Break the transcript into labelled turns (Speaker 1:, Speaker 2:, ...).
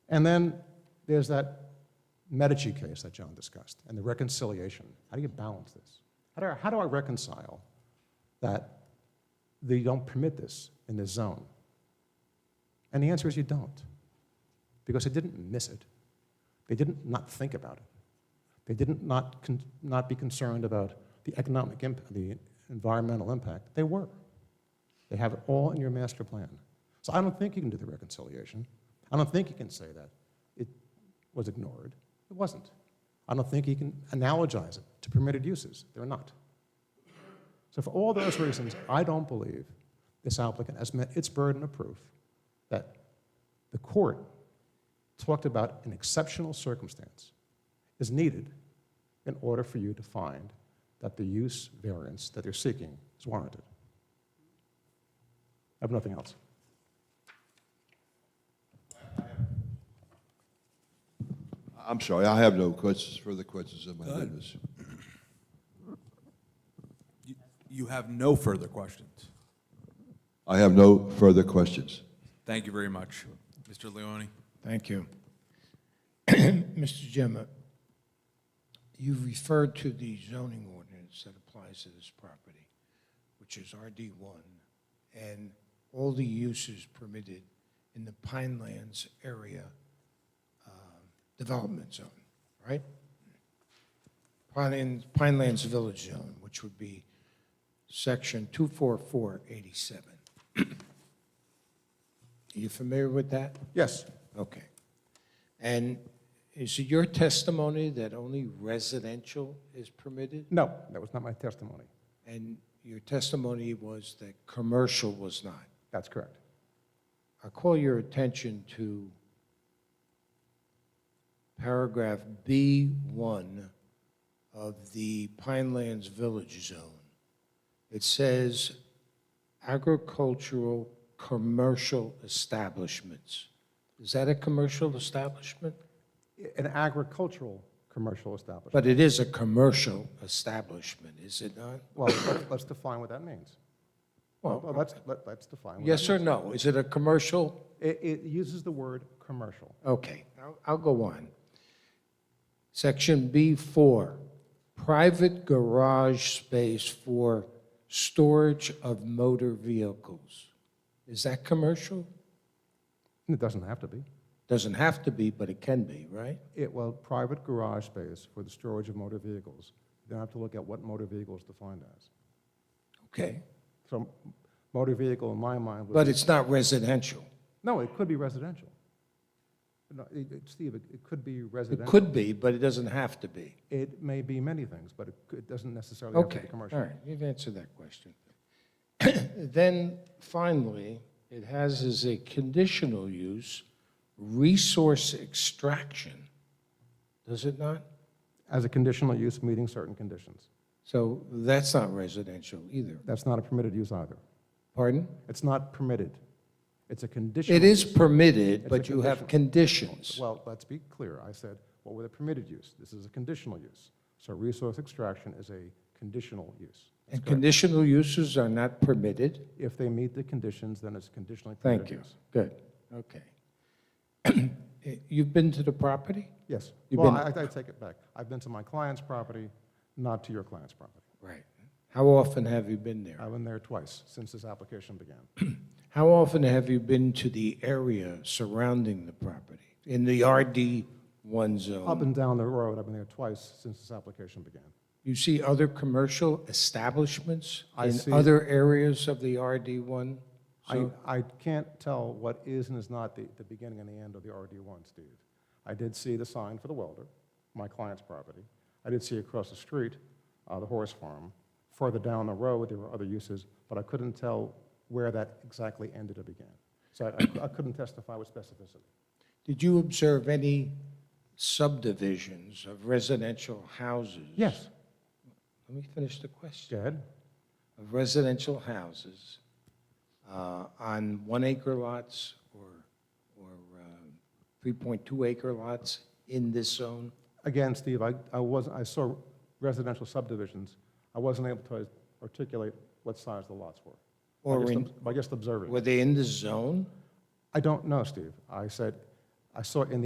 Speaker 1: And then there's that Medici case that John discussed and the reconciliation. How do you balance this? How do I, how do I reconcile that they don't permit this in this zone? And the answer is you don't, because they didn't miss it. They didn't not think about it. They didn't not, con- not be concerned about the economic impact, the environmental impact. They were. They have it all in your master plan. So I don't think you can do the reconciliation. I don't think you can say that it was ignored. It wasn't. I don't think you can analogize it to permitted uses. They're not. So for all those reasons, I don't believe this applicant has met its burden of proof that the court talked about an exceptional circumstance is needed in order for you to find that the use variance that they're seeking is warranted. I have nothing else.
Speaker 2: I'm sorry, I have no questions, further questions of my
Speaker 3: Good.
Speaker 2: witness.
Speaker 3: You- You have no further questions.
Speaker 2: I have no further questions.
Speaker 3: Thank you very much. Mr. Leone?
Speaker 4: Thank you. Mr. Gemma, you referred to the zoning ordinance that applies to this property, which is RD1, and all the uses permitted in the Pinelands area um, development zone, right? Pinelands, Pinelands Village Zone, which would be section 24487. Are you familiar with that?
Speaker 1: Yes,
Speaker 4: Okay. And is it your testimony that only residential is permitted?
Speaker 1: no, that was not my testimony.
Speaker 4: And your testimony was that commercial was not?
Speaker 1: That's correct.
Speaker 4: I call your attention to paragraph B1 of the Pinelands Village Zone. It says agricultural commercial establishments. Is that a commercial establishment?
Speaker 1: An agricultural commercial establishment.
Speaker 4: But it is a commercial establishment, is it not?
Speaker 1: Well, let's- let's define what that means. Well,
Speaker 4: Well,
Speaker 1: let's, let- let's define. what
Speaker 4: yes
Speaker 1: that
Speaker 4: or no? Is it a commercial?
Speaker 1: means. It, it uses the word commercial.
Speaker 4: Okay, I'll, I'll go on. Section B4, private garage space for storage of motor vehicles. Is that commercial?
Speaker 1: It doesn't have to be.
Speaker 4: Doesn't have to be, but it can be, right?
Speaker 1: It, well, private garage space for the storage of motor vehicles. You don't have to look at what motor vehicle is defined as.
Speaker 4: Okay,
Speaker 1: So motor vehicle in my mind would
Speaker 4: but it's not residential.
Speaker 1: No, it could be residential. No, it- it- Steve, it- it could be
Speaker 4: It
Speaker 1: residential.
Speaker 4: could be, but it doesn't have to be.
Speaker 1: It may be many things, but it could- it doesn't necessarily have to
Speaker 4: Okay,
Speaker 1: be
Speaker 4: all
Speaker 1: commercial.
Speaker 4: right, you've answered that question. Then finally, it has as a conditional use, resource extraction, does it not?
Speaker 1: As a conditional use meeting certain conditions.
Speaker 4: So that's not residential either,
Speaker 1: That's not a permitted use either.
Speaker 4: pardon?
Speaker 1: It's not permitted. It's a conditional.
Speaker 4: It is
Speaker 1: use.
Speaker 4: permitted,
Speaker 1: a
Speaker 4: but you have conditions.
Speaker 1: Well, let's be clear. I said, what were the permitted use? This is a conditional use. So resource extraction is a conditional use.
Speaker 4: And conditional uses are not permitted?
Speaker 1: If they meet the conditions, then it's conditionally permitted
Speaker 4: Thank you,
Speaker 1: use.
Speaker 4: good, okay. You've been to the property?
Speaker 1: Yes.
Speaker 4: You've
Speaker 1: Well, I
Speaker 4: been-
Speaker 1: I take it back. I've been to my client's property, not to your client's property.
Speaker 4: Right. How often have you been there?
Speaker 1: I've been there twice since this application began.
Speaker 4: How often have you been to the area surrounding the property, in the RD1
Speaker 1: Up
Speaker 4: zone?
Speaker 1: and down the road, I've been there twice since this application began.
Speaker 4: You see other commercial establishments
Speaker 1: I
Speaker 4: in
Speaker 1: see-
Speaker 4: other areas of the RD1?
Speaker 1: I, I can't tell what is and is not the, the beginning and the end of the RD1, Steve. I did see the sign for the welder, my client's property. I did see across the street, uh, the horse farm. Further down the road, there were other uses, but I couldn't tell where that exactly ended or began. So I, I couldn't testify with specificity.
Speaker 4: Did you observe any subdivisions of residential houses?
Speaker 1: Yes,
Speaker 4: Let me finish the question.
Speaker 1: go ahead.
Speaker 4: Of residential houses uh, on one-acre lots or or um, 3.2-acre lots in this zone?
Speaker 1: Again, Steve, I, I wasn't, I saw residential subdivisions. I wasn't able to articulate what size the lots were.
Speaker 4: Or
Speaker 1: By just
Speaker 4: in-
Speaker 1: ob- By just observing.
Speaker 4: Were they in the zone?
Speaker 1: I don't know, Steve. I said, I saw in the